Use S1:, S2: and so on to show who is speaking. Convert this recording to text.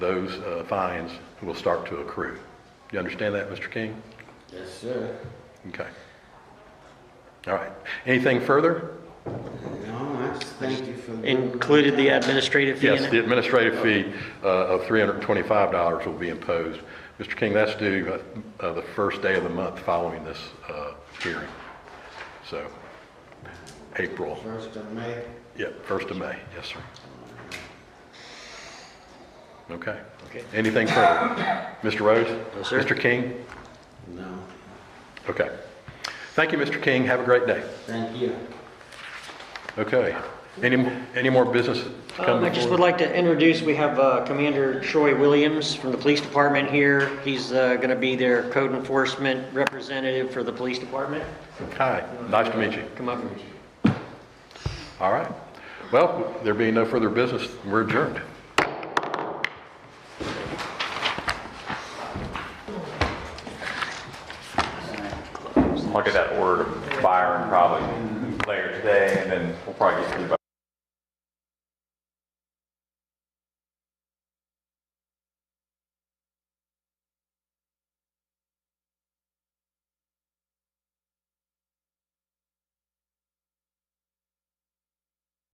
S1: those uh, fines will start to accrue. You understand that, Mr. King?
S2: Yes, sir.
S1: Okay. All right. Anything further?
S2: No, I just thank you for.
S3: Included the administrative fee in
S1: Yes, the
S3: it?
S1: administrative fee uh, of $325 will be imposed. Mr. King, that's due uh, uh, the first day of the month following this uh, hearing. So, April,
S2: First of May.
S1: yep, 1st of May, yes, sir. Okay. Anything further? Mr. Rose?
S3: No, sir.
S1: Mr. King?
S2: No,
S1: Okay. Thank you, Mr. King. Have a great day.
S2: thank you.
S1: Okay. Any, any more business to come
S3: Um, I just
S1: before?
S3: would like to introduce, we have uh, Commander Troy Williams from the Police Department here. He's going to be their code enforcement representative for the Police Department.
S1: Hi, nice to meet you.
S3: Come up.
S1: All right. Well, there being no further business, we're adjourned.
S4: Look at that order, Byron probably later today, and then we'll probably get through by